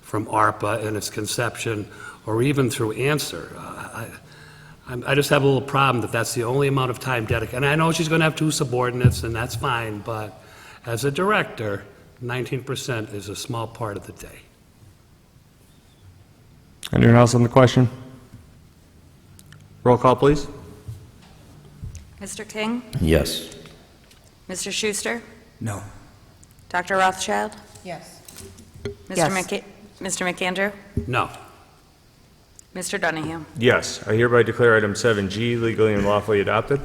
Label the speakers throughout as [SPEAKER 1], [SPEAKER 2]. [SPEAKER 1] from ARPA in its conception, or even through answer. Uh, I I'm- I just have a little problem that that's the only amount of time dedicated, and I know she's going to have two subordinates, and that's fine, but as a director, 19% is a small part of the day.
[SPEAKER 2] Anyone else on the question? Roll call, please.
[SPEAKER 3] Mr. King?
[SPEAKER 4] Yes.
[SPEAKER 3] Mr. Schuster?
[SPEAKER 4] No.
[SPEAKER 3] Dr. Rothschild?
[SPEAKER 5] Yes.
[SPEAKER 3] Mr. McA- Mr. McAndrew?
[SPEAKER 1] No.
[SPEAKER 3] Mr. Donahue?
[SPEAKER 2] Yes, I hereby declare item 7G legally and lawfully adopted.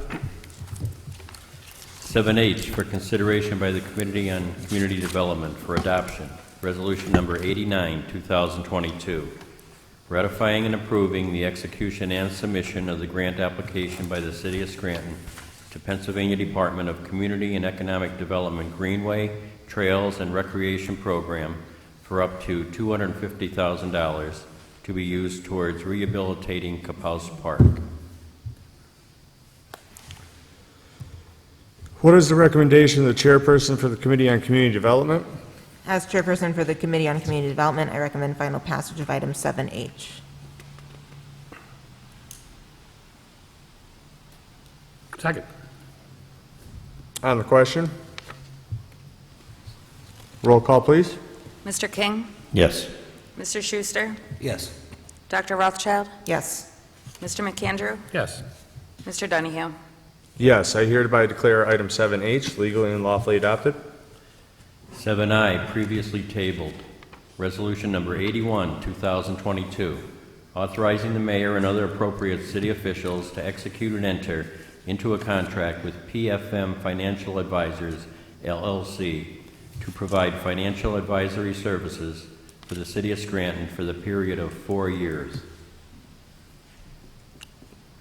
[SPEAKER 4] 7H for consideration by the Committee on Community Development for Adoption, Resolution Number 89, 2022, ratifying and approving the execution and submission of the grant application by the City of Scranton to Pennsylvania Department of Community and Economic Development Greenway, Trails, and Recreation Program for up to $250,000 to be used towards rehabilitating Capous Park.
[SPEAKER 2] What is the recommendation of the chairperson for the Committee on Community Development?
[SPEAKER 5] As chairperson for the Committee on Community Development, I recommend final passage of item 7H.
[SPEAKER 1] Second.
[SPEAKER 2] On the question? Roll call, please.
[SPEAKER 3] Mr. King?
[SPEAKER 4] Yes.
[SPEAKER 3] Mr. Schuster?
[SPEAKER 4] Yes.
[SPEAKER 3] Dr. Rothschild?
[SPEAKER 5] Yes.
[SPEAKER 3] Mr. McAndrew?
[SPEAKER 1] Yes.
[SPEAKER 3] Mr. Donahue?
[SPEAKER 2] Yes, I hereby declare item 7H legally and lawfully adopted.
[SPEAKER 4] 7I, previously tabled. Resolution number 81, 2022, authorizing the mayor and other appropriate city officials to execute and enter into a contract with PFM Financial Advisors LLC to provide financial advisory services for the city of Scranton for the period of four years.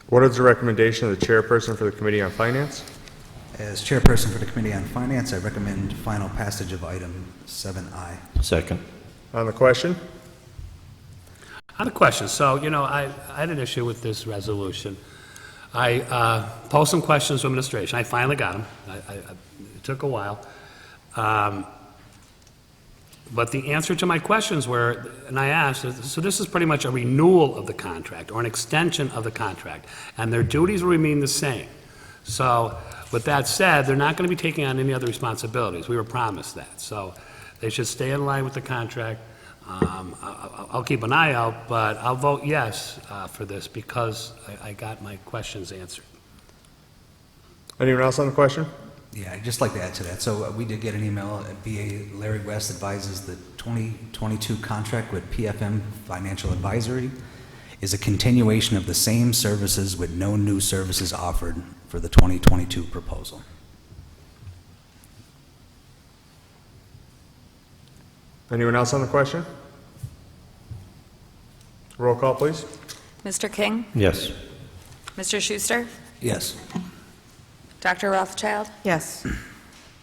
[SPEAKER 2] What is the recommendation of the chairperson for the Committee on Finance?
[SPEAKER 6] As chairperson for the Committee on Finance, I recommend final passage of item 7I.
[SPEAKER 4] Second.
[SPEAKER 2] On the question?
[SPEAKER 1] I have a question. So, you know, I, I had an issue with this resolution. I uh, posed some questions to administration. I finally got them. I, I, I- it took a while. Um, But the answer to my questions were, and I asked, so this is pretty much a renewal of the contract or an extension of the contract, and their duties will remain the same. So with that said, they're not going to be taking on any other responsibilities. We were promised that. So they should stay in line with the contract. Um, I- I- I'll keep an eye out, but I'll vote yes uh, for this because I- I got my questions answered.
[SPEAKER 2] Anyone else on the question?
[SPEAKER 6] Yeah, I'd just like to add to that. So uh, we did get an email, uh, BA Larry West advises the 2022 contract with PFM Financial Advisory is a continuation of the same services with no new services offered for the 2022 proposal.
[SPEAKER 2] Anyone else on the question? Roll call, please.
[SPEAKER 3] Mr. King?
[SPEAKER 4] Yes.
[SPEAKER 3] Mr. Schuster?
[SPEAKER 6] Yes.
[SPEAKER 3] Dr. Rothschild?
[SPEAKER 5] Yes.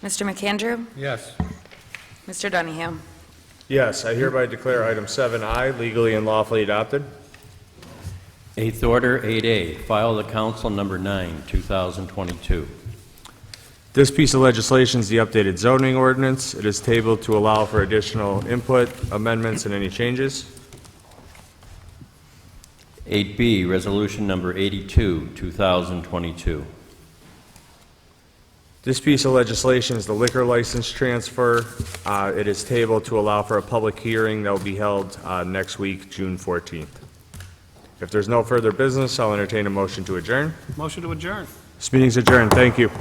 [SPEAKER 3] Mr. McAndrew?
[SPEAKER 1] Yes.
[SPEAKER 3] Mr. Donahue?
[SPEAKER 2] Yes, I hereby declare item 7I legally and lawfully adopted.
[SPEAKER 4] Eighth order, 8A, file of the council number 9, 2022.
[SPEAKER 2] This piece of legislation is the updated zoning ordinance. It is tabled to allow for additional input, amendments, and any changes.
[SPEAKER 4] 8B, Resolution Number 82, 2022.
[SPEAKER 2] This piece of legislation is the liquor license transfer. Uh, It is tabled to allow for a public hearing that will be held uh, next week, June 14th. If there's no further business, I'll entertain a motion to adjourn.
[SPEAKER 1] Motion to adjourn.
[SPEAKER 2] This meeting's adjourned. Thank you.